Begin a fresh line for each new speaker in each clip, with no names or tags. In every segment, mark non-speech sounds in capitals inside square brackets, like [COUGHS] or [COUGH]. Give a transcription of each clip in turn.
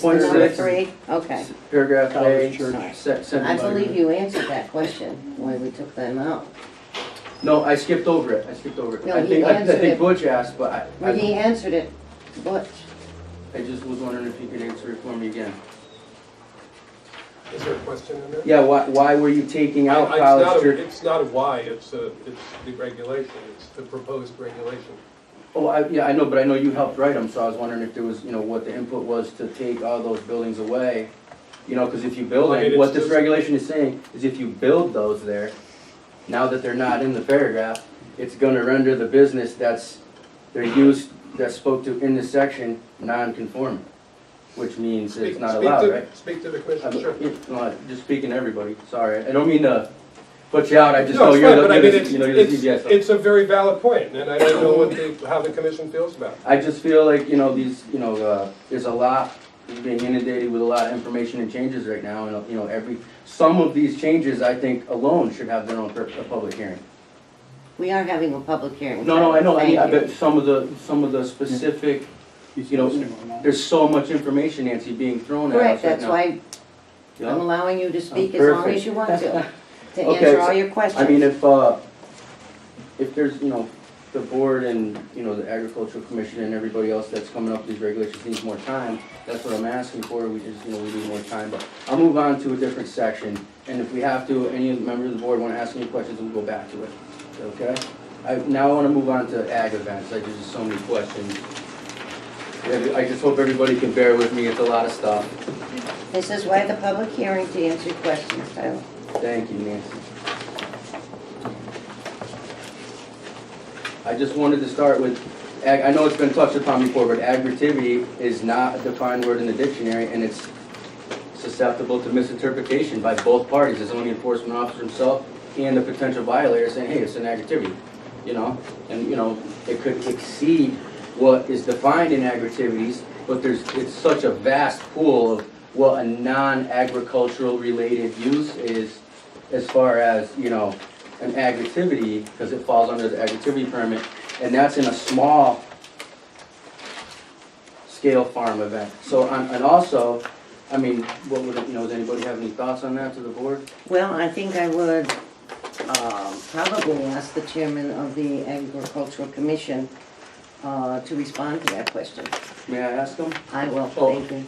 Point
Number
six.
three, okay.
Paragraph
College
A,
Church.
Alright.
se-
I
sentence.
believe you answered that question, why we took them out.
No, I skipped over it, I skipped over it.
No,
I
he
think- I-
answered
I think
it.
Butch asked, but I-
Well, he
I,
answered it, Butch.
I just was wondering if you could answer it for me again.
Is there a question in there?
Yeah, why, why were you taking out
I- it's not
College
a-
Church?
It's not a why, it's a, it's the regulation, it's the proposed regulation.
Oh, I, yeah, I know, but I know you helped write them, so I was wondering if there was, you know, what the input was to take all those buildings away. You know, because if you build,
I mean,
it-
it's
what this
just-
regulation is saying is if you build those there, now that they're not in the paragraph, it's gonna render the business that's, they're used, that's spoke to in this section, non-conforming, which means it's
Speak-
not
speak to-
allowed, right?
Speak to the
I'm-
question, sure.
you know, Just speaking to everybody, sorry, I don't mean to put you out, I just
No,
know
it's
you're
fine, but I mean,
the,
it's,
you know, you're the
it's,
ZBA. so-
it's a very valid point, and I don't know what the, how the commission feels about it.
I just feel like, you know, these, you know, uh, there's a lot, we're being inundated with a lot of information and changes right now, and, uh, you know, every, some of these changes, I think, alone should have their own per- a public hearing.
We are having a public hearing.
No, no, I know, I mean, I
Thank you.
bet some of the, some of the specific,
He's
You know,
listening or not.
there's so much information, Nancy, being thrown at
Correct,
us right
that's
now.
why
Yeah. Oh,
I'm allowing you to speak as long
Perfect.
as you want
[LAUGHS]
to, to
Okay,
answer
so-
all your questions.
I mean, if, uh, if there's, you know, the board and, you know, the agricultural commission and everybody else that's coming up with these regulations needs more time, that's what I'm asking for, we just, you know, we need more time, but I'll move on to a different section, and if we have to, any of the members of the board wanna ask any questions, we'll go back to it, okay? I, now I wanna move on to ag events, I just, so many questions. Yeah, I just hope everybody can bear with me, it's a lot of stuff.
This is why the public hearing to answer questions, Tyler.
Thank you, Nancy. I just wanted to start with, ag- I know it's been touched upon before, but agritivity is not a defined word in the dictionary, and it's susceptible to misinterpretation by both parties, the zoning enforcement officer himself and the potential violator saying, hey, it's an agritivity, you know? And, you know, it could exceed what is defined in agritivties, but there's, it's such a vast pool of what a non-agricultural related use is as far as, you know, an agritivity, because it falls under the agritivity permit, and that's in a small scale farm event. So, um, and also, I mean, what would, you know, does anybody have any thoughts on that to the board?
Well, I think I would um, probably ask the chairman of the agricultural commission uh, to respond to that question.
May I ask them?
I will,
Oh.
thank you.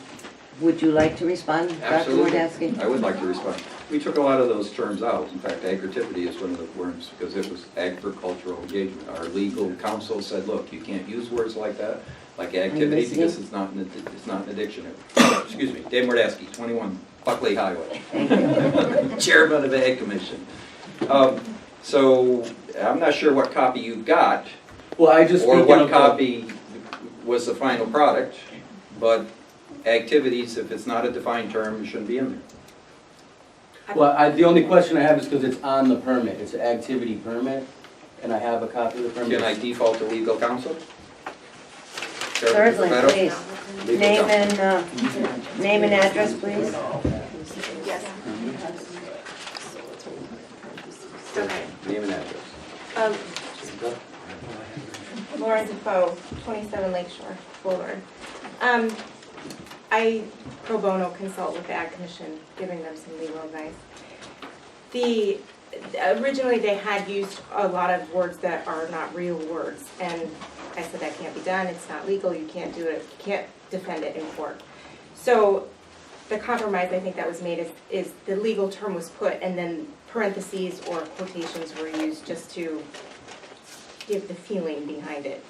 Would you like to respond, Dr.
Absolutely.
Wardasky?
I would like to respond. We took a lot of those terms out. In fact, agritivity is one of the words because it was agricultural engagement. Our legal counsel said, look, you can't use words like that, like activity,
listening.
because it's not in the, it's not in the dictionary. [COUGHS] Excuse me, Dave Mordasky, 21 Buckley Highway. [LAUGHS] Chairman of the Ag Commission. Um, So I'm not sure what copy you got
Well, I just
or
speaking
what
of, the-
copy was the final product, but activities, if it's not a defined term, shouldn't be in there.
well, I, the only question I have is because it's on the permit, it's an activity permit, and I have a copy of the permit.
Can I default to legal counsel?
Certainly,
Beto?
please.
Legal
Name and,
counsel.
uh, name and address, please.
Yes. Okay,
Name and address.
um, Lauren Defoe, twenty-seven Lake Shore Boulevard. Um, I pro bono consult with the Ag Commission, giving them some legal advice. The, originally, they had used a lot of words that are not real words, and I said that can't be done, it's not legal, you can't do it, you can't defend it in court. So the compromise, I think that was made is, is the legal term was put, and then parentheses or quotations were used just to give the feeling behind it.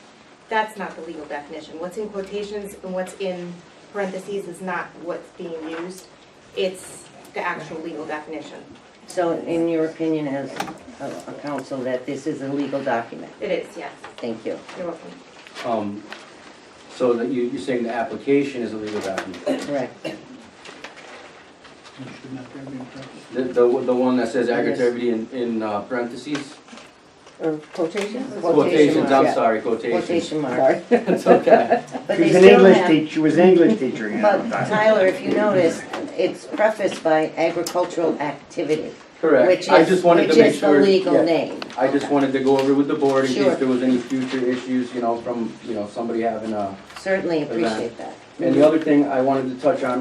That's not the legal definition. What's in quotations and what's in parentheses is not what's being used. It's the actual legal definition.
So in your opinion as a- a counsel, that this is a legal document?
It is, yes.
Thank you.
You're welcome.
Um, so that you, you're saying the application is a legal document,
Correct.
You should not have been practicing.
the, the, the one that says
Yes.
agritivity in, in uh, parentheses?
Or quotations?
Quotations, I'm
mark.
sorry, quotations. [LAUGHS]
Quotation mark.
It's okay.
But they
She was an
still
English
have,
teacher, she was an English teacher, you know.
but Tyler, if you notice, it's prefaced by agricultural activity, which
Correct, I
is,
just wanted
which
to make
is the
sure.
legal
yeah.
name.
I just wanted to go over with the board in
Sure.
case there was any future issues, you know, from, you know, somebody having a,
Certainly appreciate that.
And the other thing I wanted to touch on